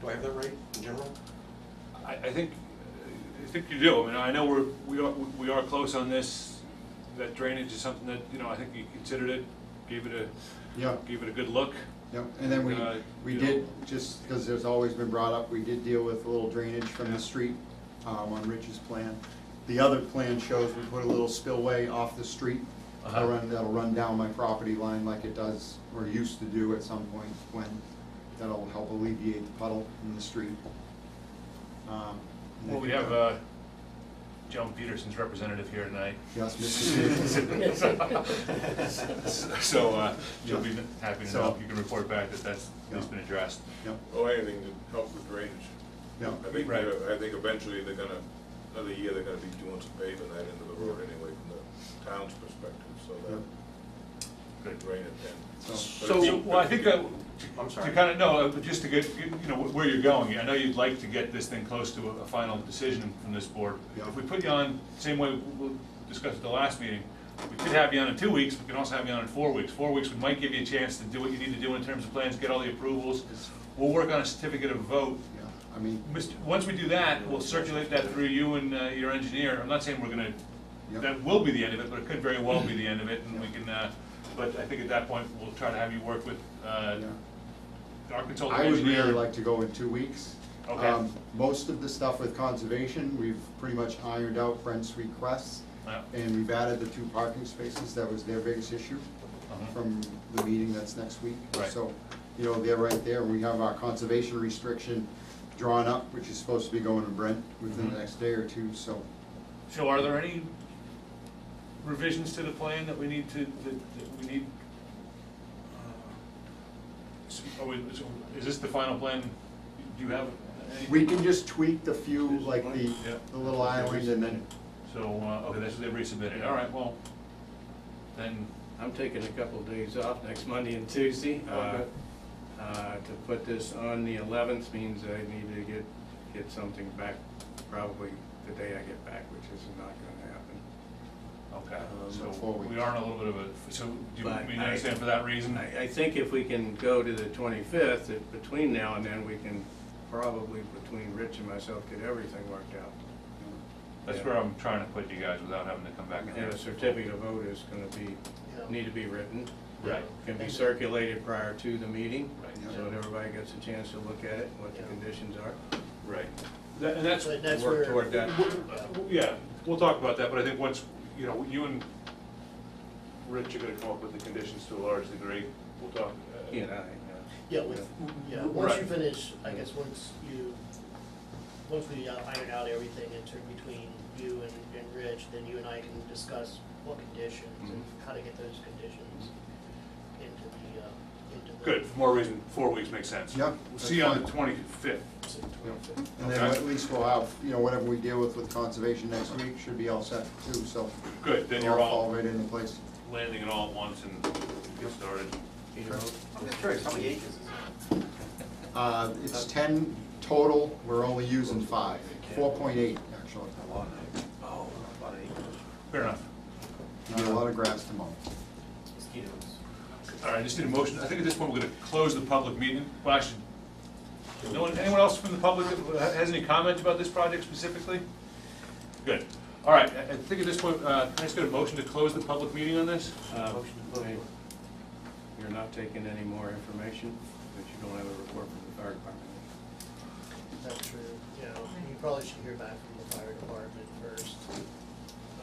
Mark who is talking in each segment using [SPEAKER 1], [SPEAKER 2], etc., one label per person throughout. [SPEAKER 1] Do I have that right in general?
[SPEAKER 2] I, I think, I think you do, I mean, I know we're, we are, we are close on this, that drainage is something that, you know, I think you considered it, gave it a,
[SPEAKER 3] Yeah,
[SPEAKER 2] gave it a good look.
[SPEAKER 3] yeah, and then we,
[SPEAKER 2] Uh,
[SPEAKER 3] we
[SPEAKER 2] you know.
[SPEAKER 3] did, just because there's always been brought up, we did deal with a little drainage from
[SPEAKER 2] Yeah.
[SPEAKER 3] the street um, on Rich's plan. The other plan shows we put a little spillway off the street that'll
[SPEAKER 4] Uh-huh.
[SPEAKER 3] run, that'll run down my property line like it does, or used to do at some point when, that'll help alleviate the puddle in the street. Um, and I
[SPEAKER 4] Well, we
[SPEAKER 3] think
[SPEAKER 4] have,
[SPEAKER 3] that-
[SPEAKER 4] uh, Joan Peterson's representative here tonight.
[SPEAKER 3] Yes, Mr. Davis.
[SPEAKER 4] So, uh, she'll be happy to
[SPEAKER 3] So-
[SPEAKER 4] know, you can report back that that's, it's
[SPEAKER 3] Yeah.
[SPEAKER 4] been addressed.
[SPEAKER 3] Yep,
[SPEAKER 5] Well, anything to help with drainage.
[SPEAKER 3] yep.
[SPEAKER 5] I think,
[SPEAKER 4] Right.
[SPEAKER 5] they're- I think eventually they're gonna, another year, they're gonna be doing some paving that end of the road anyway, from the town's perspective, so that
[SPEAKER 4] Good.
[SPEAKER 5] drainage then.
[SPEAKER 3] So-
[SPEAKER 5] But if
[SPEAKER 2] So,
[SPEAKER 5] you-
[SPEAKER 2] well, I think that,
[SPEAKER 1] I'm
[SPEAKER 2] to
[SPEAKER 1] sorry.
[SPEAKER 2] kind of, no, uh, but just to get, get, you know, where you're going, I know you'd like to get this thing close to a, a final decision from this board.
[SPEAKER 3] Yeah.
[SPEAKER 2] If we put you on, same way we we discussed at the last meeting, we could have you on in two weeks, we can also have you on in four weeks. Four weeks, we might give you a chance to do what you need to do in terms of plans, get all the approvals. We'll work on a certificate of vote.
[SPEAKER 3] Yeah, I mean,
[SPEAKER 2] Mr. Once we do that, we'll circulate that through you and uh, your engineer. I'm not saying we're gonna,
[SPEAKER 3] Yep.
[SPEAKER 2] that will be the end of it, but it could very well be the end of it, and we can, uh, but I think at that point, we'll try to have you work with uh,
[SPEAKER 3] yeah.
[SPEAKER 2] our consultant
[SPEAKER 3] I would
[SPEAKER 2] engineer.
[SPEAKER 3] really like to go in two weeks.
[SPEAKER 2] Okay.
[SPEAKER 3] Um, Most of the stuff with conservation, we've pretty much ironed out Brent's requests,
[SPEAKER 2] Yeah.
[SPEAKER 3] and we've added the two parking spaces, that was their biggest issue
[SPEAKER 2] Uh-huh.
[SPEAKER 3] from the meeting that's next week.
[SPEAKER 2] Right.
[SPEAKER 3] So, you know, they're right there, we have our conservation restriction drawn up, which is supposed to be going to Brent within the
[SPEAKER 2] Mhm.
[SPEAKER 3] next day or two, so.
[SPEAKER 2] So are there any revisions to the plan that we need to, that that we need? So Uh, Are we, so is this the final plan? Do you have any?
[SPEAKER 3] We can just tweak the few, like the,
[SPEAKER 2] Yeah.
[SPEAKER 3] the little island and then,
[SPEAKER 2] So, uh, okay, that's what they resubmitted, all right, well, then,
[SPEAKER 6] I'm taking a couple of days off next Monday and Tuesday. uh,
[SPEAKER 2] Okay.
[SPEAKER 6] uh, To put this on the eleventh means I need to get, get something back probably the day I get back, which is not gonna happen.
[SPEAKER 2] okay,
[SPEAKER 6] Um,
[SPEAKER 2] so
[SPEAKER 3] four weeks.
[SPEAKER 2] we are in a little bit of a, so do you,
[SPEAKER 6] But
[SPEAKER 2] mean,
[SPEAKER 6] I-
[SPEAKER 2] understand for that reason?
[SPEAKER 6] I, I think if we can go to the twenty-fifth, if between now and then, we can probably, between Rich and myself, get everything worked out.
[SPEAKER 2] That's where I'm trying to put you guys without having to come back and.
[SPEAKER 6] And a certificate of vote is gonna be, need to be written.
[SPEAKER 2] Right,
[SPEAKER 6] Can be circulated prior to the meeting.
[SPEAKER 2] Right.
[SPEAKER 6] So that everybody gets a chance to look at it, what the
[SPEAKER 7] Yeah.
[SPEAKER 6] conditions are.
[SPEAKER 2] right, That- and that's,
[SPEAKER 7] But that's where.
[SPEAKER 6] Work toward that.
[SPEAKER 2] w- yeah, we'll talk about that, but I think once, you know, you and Rich are gonna come up with the conditions to a large degree, we'll talk. uh,
[SPEAKER 6] He and I,
[SPEAKER 7] Yeah, with, yeah, once you
[SPEAKER 2] Right.
[SPEAKER 7] finish, I guess, once you, once we uh, iron out everything in turn between you and, and Rich, then you and I can discuss what conditions and how to get those conditions into the, uh, into the.
[SPEAKER 2] Good, for more reason, four weeks makes sense.
[SPEAKER 3] Yeah,
[SPEAKER 2] We'll
[SPEAKER 3] that's
[SPEAKER 2] see you on the
[SPEAKER 3] fine.
[SPEAKER 2] twenty-fifth.
[SPEAKER 3] and then
[SPEAKER 2] Okay.
[SPEAKER 3] at least we'll have, you know, whatever we deal with with conservation next week should be all set too, so.
[SPEAKER 2] Good, then
[SPEAKER 3] It'll
[SPEAKER 2] you're
[SPEAKER 3] Fall
[SPEAKER 2] all
[SPEAKER 3] right into place.
[SPEAKER 2] landing it all at once and get started.
[SPEAKER 6] yeah. You know,
[SPEAKER 8] I'm just curious, how many acres is
[SPEAKER 3] Uh, it's ten total, we're only using five, four point eight, actually.
[SPEAKER 8] it? One acre. Oh, about an
[SPEAKER 2] Fair enough.
[SPEAKER 3] You get a lot of grass to mow.
[SPEAKER 8] Mosquitoes.
[SPEAKER 2] All right, I just need a motion. I think at this point, we're gonna close the public meeting. Well, I should, no one, anyone else from the public that has any comments about this project specifically? Good. All right, I I think at this point, uh, can I just get a motion to close the public meeting on this?
[SPEAKER 6] um,
[SPEAKER 8] Motion to vote.
[SPEAKER 6] hey, You're not taking any more information, but you don't have a report from the fire department.
[SPEAKER 7] That's true, you know, you probably should hear back from the fire department first.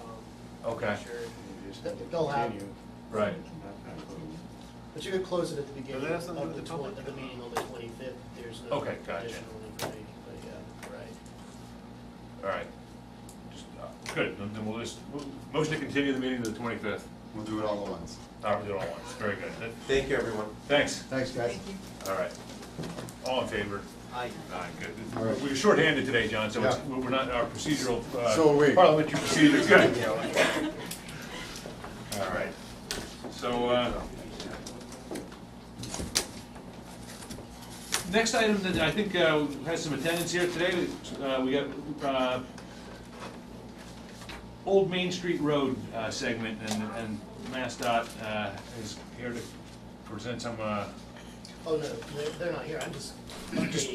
[SPEAKER 7] um,
[SPEAKER 2] Okay.
[SPEAKER 7] Sure,
[SPEAKER 6] You just
[SPEAKER 7] Th-
[SPEAKER 6] need to
[SPEAKER 7] they'll have-
[SPEAKER 6] continue,
[SPEAKER 2] Right.
[SPEAKER 6] not- not close.
[SPEAKER 7] but you could close it at the beginning
[SPEAKER 8] that has something
[SPEAKER 7] of
[SPEAKER 8] to
[SPEAKER 7] the
[SPEAKER 8] do with
[SPEAKER 7] twen,
[SPEAKER 8] the
[SPEAKER 7] of the meeting on the twenty-fifth, there's no
[SPEAKER 2] Okay,
[SPEAKER 7] additional
[SPEAKER 2] gotcha.
[SPEAKER 7] information, but yeah, right.
[SPEAKER 2] All right. Just, uh, Good, then then we'll just, we'll- motion to continue the meeting to the twenty-fifth.
[SPEAKER 3] We'll do it all at once.
[SPEAKER 2] All right, we did all at once. Very good. That-
[SPEAKER 8] Thank you, everyone.
[SPEAKER 2] Thanks.
[SPEAKER 3] Thanks, guys.
[SPEAKER 2] All right. All in favor?
[SPEAKER 8] Aye.
[SPEAKER 2] Aye, good.
[SPEAKER 3] All right.
[SPEAKER 2] We were shorthanded today, John, so it's-
[SPEAKER 3] Yeah.
[SPEAKER 2] we're not, our procedural,
[SPEAKER 3] So are
[SPEAKER 2] uh,
[SPEAKER 3] we.
[SPEAKER 2] parliamentary procedure is good.
[SPEAKER 8] Yeah, well.
[SPEAKER 2] All right. So, uh, next item that I think uh, has some attendance here today, uh, we got uh, Old Main Street Road uh, segment, and and MassDOT uh, is here to present some uh,
[SPEAKER 7] Oh, no, they're, they're not here, I'm just. updating